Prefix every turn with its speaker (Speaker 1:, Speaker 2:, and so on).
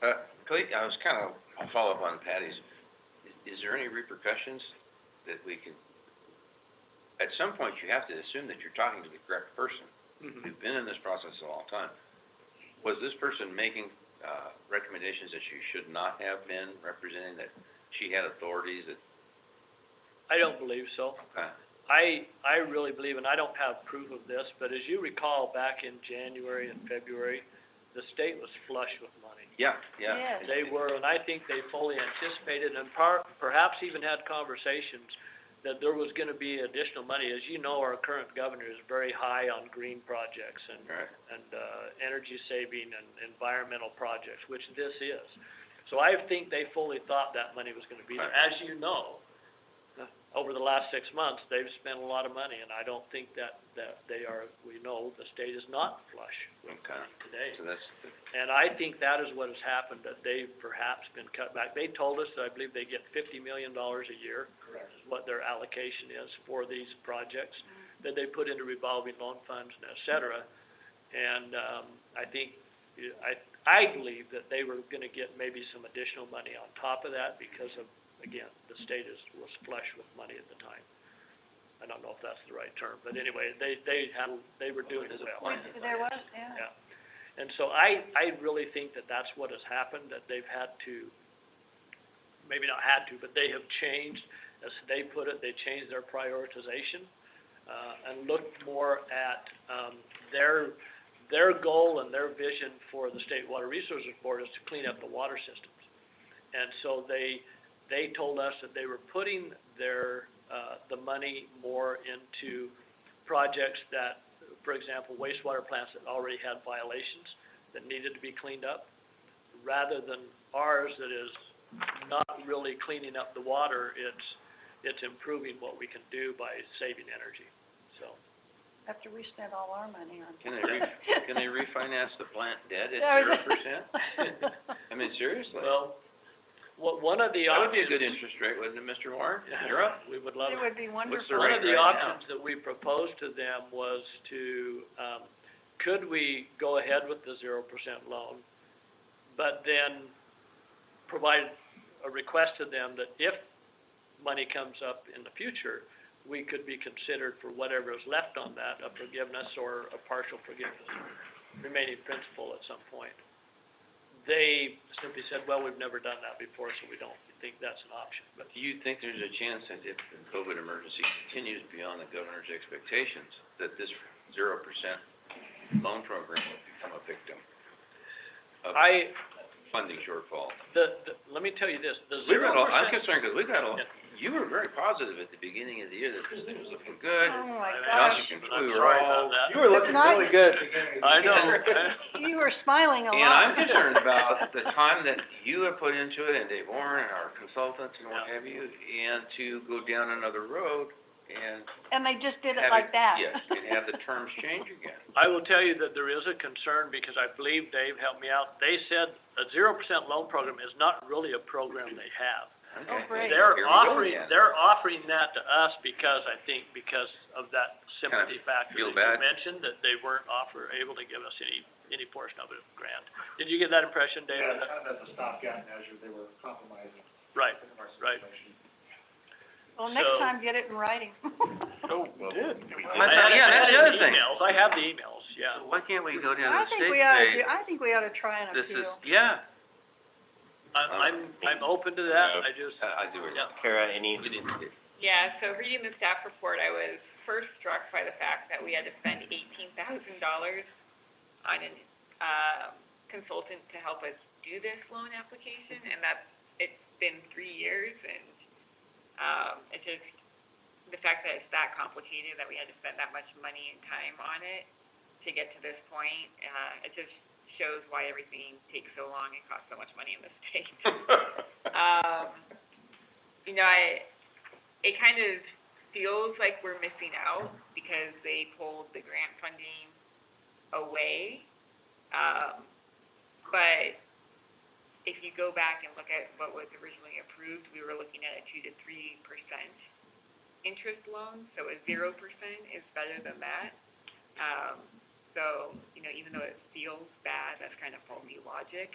Speaker 1: Uh, Khalid, I was kind of, I'll follow up on Patty's. Is- Is there any repercussions that we can, at some point, you have to assume that you're talking to the correct person.
Speaker 2: Mm-hmm.
Speaker 1: We've been in this process a long time. Was this person making, uh, recommendations that she should not have been representing, that she had authorities that,
Speaker 2: I don't believe so.
Speaker 1: uh,
Speaker 2: I, I really believe, and I don't have proof of this, but as you recall, back in January and February, the state was flush with money.
Speaker 1: yeah, yeah.
Speaker 3: Yes.
Speaker 2: They were, and I think they fully anticipated and par- perhaps even had conversations that there was gonna be additional money. As you know, our current governor is very high on green projects and
Speaker 1: Right,
Speaker 2: and, uh, energy saving and environmental projects, which this is. So I think they fully thought that money was gonna be there. As you know, over the last six months, they've spent a lot of money, and I don't think that, that they are, we know, the state is not flush
Speaker 1: okay.
Speaker 2: today.
Speaker 1: So that's,
Speaker 2: And I think that is what has happened, that they've perhaps been cut back. They told us, that I believe they get fifty million dollars a year. Correct. Is what their allocation is for these projects that they put into revolving loan funds and et cetera. And, um, I think, yeah, I, I believe that they were gonna get maybe some additional money on top of that because of, again, the state is, was flush with money at the time. I don't know if that's the right term, but anyway, they, they had, they were doing
Speaker 1: There's a
Speaker 2: well.
Speaker 1: plan.
Speaker 3: Which, there was, yeah.
Speaker 2: Yeah. And so I, I really think that that's what has happened, that they've had to, maybe not had to, but they have changed, as they put it, they changed their prioritization, uh, and looked more at, um, their, their goal and their vision for the State Water Resources Board is to clean up the water systems. And so they, they told us that they were putting their, uh, the money more into projects that, for example, wastewater plants that already had violations that needed to be cleaned up, rather than ours that is not really cleaning up the water, it's, it's improving what we can do by saving energy, so.
Speaker 3: After we spent all our money on.
Speaker 1: Can they re- can they refinance the plant debt at
Speaker 3: That
Speaker 1: zero
Speaker 3: was-
Speaker 1: percent? I mean, seriously?
Speaker 2: Well, what, one of the
Speaker 1: That would be
Speaker 2: options.
Speaker 1: a good interest rate, wouldn't it, Mr. Warren?
Speaker 2: Yeah,
Speaker 1: You're up.
Speaker 2: We would love it.
Speaker 3: It would be wonderful.
Speaker 1: the rate
Speaker 2: One of the
Speaker 1: right now?
Speaker 2: options that we proposed to them was to, um, could we go ahead with the zero percent loan? But then provide a request to them that if money comes up in the future, we could be considered for whatever is left on that, a forgiveness or a partial forgiveness, remaining principal at some point. They simply said, well, we've never done that before, so we don't think that's an option, but
Speaker 1: Do you think there's a chance that if the COVID emergency continues beyond the governor's expectations, that this zero percent loan program will become a victim of
Speaker 2: I,
Speaker 1: funding shortfall?
Speaker 2: The, the, let me tell you this, the
Speaker 1: We've
Speaker 2: zero
Speaker 1: got, a- I'm
Speaker 2: percent,
Speaker 1: concerned, because we've got, a-
Speaker 2: Yeah.
Speaker 1: you were very positive at the beginning of the year that this thing was looking good.
Speaker 3: Oh, my
Speaker 2: I-
Speaker 1: Now
Speaker 3: gosh.
Speaker 1: you can-
Speaker 2: gosh,
Speaker 1: we
Speaker 2: I'm
Speaker 1: were
Speaker 2: sorry
Speaker 1: all-
Speaker 2: about that.
Speaker 1: You were looking
Speaker 3: Not-
Speaker 1: really good at the beginning of the
Speaker 2: I know,
Speaker 1: year.
Speaker 2: I-
Speaker 3: You were smiling a lot.
Speaker 1: And I'm concerned about the time that you have put into it, and Dave Warren, and our consultants, and what
Speaker 2: Yeah.
Speaker 1: have you, and to go down another road and
Speaker 3: And they just did
Speaker 1: have it,
Speaker 3: it like that.
Speaker 1: yes, and have the terms change again.
Speaker 2: I will tell you that there is a concern, because I believe Dave helped me out, they said a zero percent loan program is not really a program they have.
Speaker 1: Okay,
Speaker 3: Oh, great. Right.
Speaker 2: They're
Speaker 1: here we go
Speaker 2: offering,
Speaker 1: again.
Speaker 2: they're offering that to us because, I think, because of that sympathy factor
Speaker 1: feel bad.
Speaker 2: that you mentioned, that they weren't offer, able to give us any, any portion of a grant. Did you get that impression, Dave?
Speaker 4: Yeah, kind of as a stopgap measure, they were compromising
Speaker 2: Right,
Speaker 4: in our
Speaker 2: Right.
Speaker 4: situation.
Speaker 3: Well, next
Speaker 2: So-
Speaker 3: time, get it in writing.
Speaker 1: Oh,
Speaker 2: so,
Speaker 1: Well,
Speaker 2: good.
Speaker 1: My thought- yeah, that's the other thing.
Speaker 2: I have the emails, yeah.
Speaker 1: So Why can't we go down to the
Speaker 3: I think
Speaker 1: state
Speaker 3: we ought to
Speaker 1: and
Speaker 3: do, I think we ought to try
Speaker 1: say,
Speaker 3: an
Speaker 1: this is,
Speaker 3: appeal.
Speaker 1: yeah,
Speaker 2: I'm, I'm, I'm open to that, I just,
Speaker 1: I, I do it.
Speaker 2: yeah.
Speaker 5: Kara, any,
Speaker 1: We didn't get-
Speaker 6: Yeah, so reading the staff report, I was first struck by the fact that we had to spend eighteen thousand dollars on an, um, consultant to help us do this loan application, and that's, it's been three years, and, um, it just, the fact that it's that complicated, that we had to spend that much money and time on it to get to this point, uh, it just shows why everything takes so long and costs so much money in this state. Um, you know, I, it kind of feels like we're missing out because they pulled the grant funding away. Um, but if you go back and look at what was originally approved, we were looking at a two to three percent interest loan, so a zero percent is better than that. Um, so, you know, even though it feels bad, that's kind of faulty logic.